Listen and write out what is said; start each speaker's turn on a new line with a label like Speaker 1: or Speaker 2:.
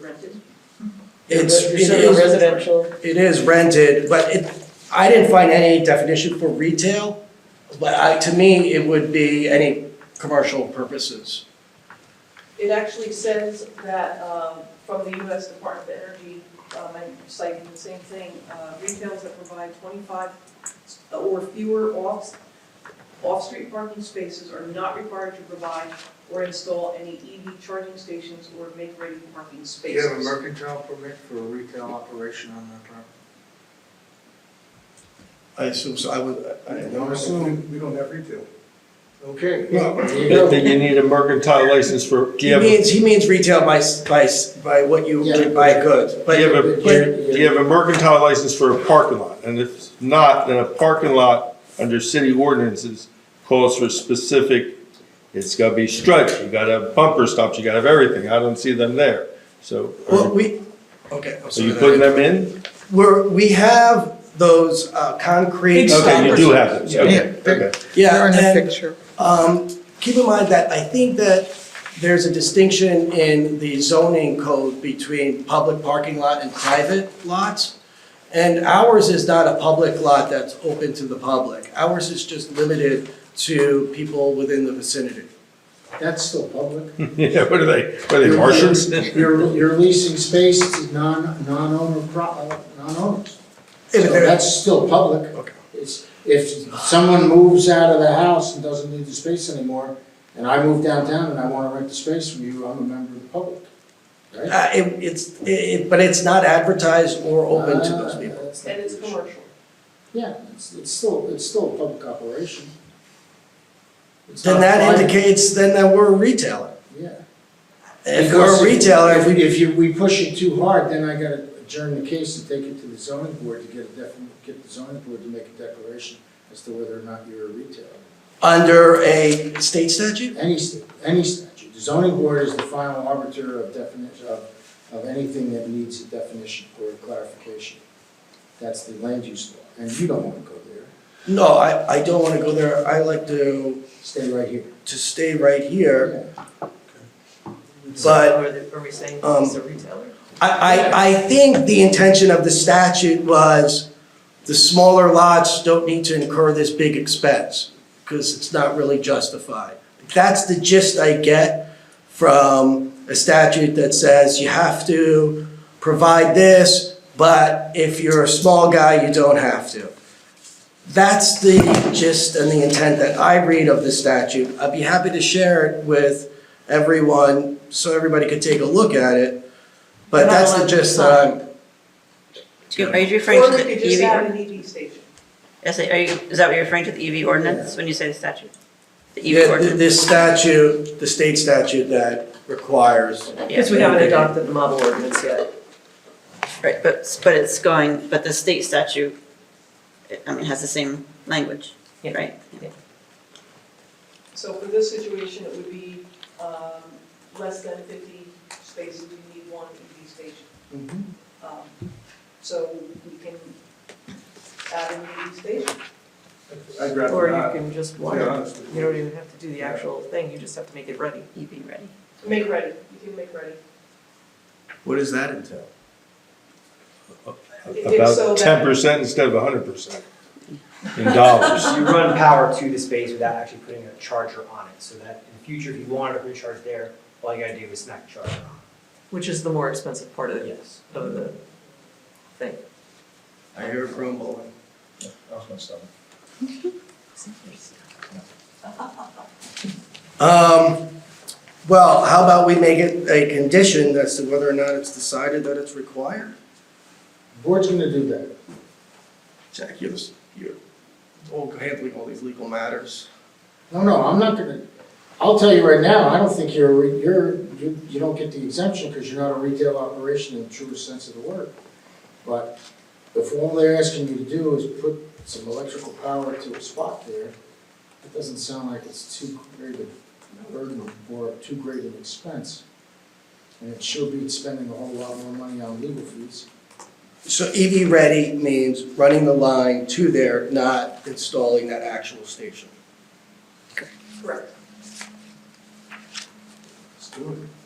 Speaker 1: rented?
Speaker 2: It's,
Speaker 3: You're
Speaker 2: it
Speaker 3: saying
Speaker 2: is,
Speaker 3: residential,
Speaker 2: it is rented, but it, I didn't find any definition for retail. But I, to me, it would be any commercial purposes.
Speaker 1: It actually says that um, from the U.S. Department of Energy, um, and citing the same thing, uh, retailers that provide 25 or fewer off, off-street parking spaces are not required to provide or install any EV charging stations or make ready parking
Speaker 4: Do you have a
Speaker 1: spaces.
Speaker 4: mercantile permit for a retail operation on that property?
Speaker 2: I assume, so I would, I don't know.
Speaker 4: we don't have retail. Okay.
Speaker 2: Well,
Speaker 5: Then you need a mercantile license for, do
Speaker 2: He
Speaker 5: you have, a-
Speaker 2: means, he means retail by, s- by, s- by what you would buy goods,
Speaker 5: do
Speaker 2: but.
Speaker 5: you have a,
Speaker 2: but-
Speaker 5: do you have a mercantile license for a parking lot? And if not, then a parking lot under city ordinances calls for specific, it's gotta be stretched, you gotta have bumper stops, you gotta have everything, I don't see them there. So,
Speaker 2: Well,
Speaker 5: are
Speaker 2: we, okay, I'm
Speaker 5: you
Speaker 2: sorry.
Speaker 5: putting them in?
Speaker 2: We're, we have those uh, concrete.
Speaker 6: Big
Speaker 5: Okay, you
Speaker 6: stoppers.
Speaker 5: do have those, okay,
Speaker 4: Yeah.
Speaker 5: okay.
Speaker 2: Yeah, and, um, keep in mind that I think that there's a distinction in the zoning code between public parking lot and private lots. And ours is not a public lot that's open to the public. Ours is just limited to people within the vicinity.
Speaker 7: That's still public.
Speaker 5: Yeah, what are they, what are they, Martians?
Speaker 7: You're, you're leasing space to non, non-owner, pro- uh, non-owners.
Speaker 2: If
Speaker 7: So
Speaker 2: they're-
Speaker 7: that's still public.
Speaker 2: Okay.
Speaker 7: It's, if someone moves out of the house and doesn't need the space anymore, and I move downtown and I wanna rent the space from you, I'm a member of the public, right?
Speaker 2: Uh, it, it's, it- it, but it's not advertised or open to those
Speaker 7: Ah,
Speaker 2: people.
Speaker 7: that's not
Speaker 1: And it's
Speaker 7: the issue.
Speaker 1: commercial.
Speaker 7: Yeah, it's, it's still, it's still a public operation. It's
Speaker 2: Then
Speaker 7: not
Speaker 2: that
Speaker 7: private.
Speaker 2: indicates then that we're a retailer.
Speaker 7: Yeah.
Speaker 2: If we're a retailer,
Speaker 7: If
Speaker 2: we
Speaker 7: we, if you, we push it too hard, then I gotta adjourn the case and take it to the zoning board to get a def, get the zoning board to make a declaration as to whether or not you're a retailer.
Speaker 2: under a state statute?
Speaker 7: Any, sta- any statute, the zoning board is the final arbiter of definition, of, of anything that needs a definition or clarification. That's the land use law, and you don't wanna go there,
Speaker 2: No, I, I don't wanna go there. I like to,
Speaker 7: stay right here.
Speaker 2: to stay right here.
Speaker 7: Yeah.
Speaker 2: But-
Speaker 3: Are they- are we saying
Speaker 2: Um,
Speaker 3: he's a retailer?
Speaker 2: I, I, I think the intention of the statute was the smaller lots don't need to incur this big expense because it's not really justified. That's the gist I get from a statute that says you have to provide this, but if you're a small guy, you don't have to. That's the gist and the intent that I read of the statute. I'd be happy to share it with everyone so everybody could take a look at it. But
Speaker 3: You're not
Speaker 2: that's the
Speaker 3: allowed to
Speaker 2: gist that I'm,
Speaker 6: Are you referring
Speaker 1: Or
Speaker 6: to
Speaker 1: we
Speaker 6: the
Speaker 1: could
Speaker 3: E
Speaker 1: just add
Speaker 6: EV?
Speaker 1: an EV station.
Speaker 6: Yes, are you, is that what you're referring to, the EV ordinance, when you say the statute? The EV
Speaker 2: Yeah, th-
Speaker 6: ordinance?
Speaker 2: this statute, the state statute that requires,
Speaker 3: Because we haven't adopted the model ordinance yet.
Speaker 6: Right, but, but it's going, but the state statute, it- I mean, has the same language,
Speaker 3: Yeah.
Speaker 6: right?
Speaker 1: So for this situation, it would be um, less than 50 spaces, you need one EV station. Um, So we can add an EV station.
Speaker 4: I'd rather
Speaker 3: Or you
Speaker 4: not, to
Speaker 3: can just
Speaker 4: be
Speaker 3: want it.
Speaker 4: honest with
Speaker 3: You
Speaker 4: you.
Speaker 3: don't even have to do the actual thing, you just have to make it ready.
Speaker 6: EV ready.
Speaker 1: Make ready, you can make ready.
Speaker 2: what does that entail?
Speaker 1: It's so that-
Speaker 5: About ten percent instead of hundred percent in dollars.
Speaker 8: you run power to the space without actually putting a charger on it, so that in the future, if you wanted to recharge there, all you gotta do is smack the charger
Speaker 3: Which is the more expensive part
Speaker 8: on.
Speaker 3: of,
Speaker 8: Yes.
Speaker 3: of the thing.
Speaker 2: I hear it rumbling. Um, well, how about we make it a condition as to whether or not it's decided that it's required?
Speaker 7: Board's gonna do that.
Speaker 2: Jack, you're, you're oh, all- handling all these legal matters.
Speaker 7: No, no, I'm not gonna, I'll tell you right now, I don't think you're, a re- you're, you you don't get the exemption because you're not a retail operation in the truest sense of the word. But if all they're asking you to do is put some electrical power to a spot there, it doesn't sound like it's too great a burden or too great an expense. And it sure beats spending a whole lot more money on legal fees.
Speaker 2: So EV ready means running the line to there, not installing that actual station.
Speaker 1: Correct.
Speaker 7: Let's do it.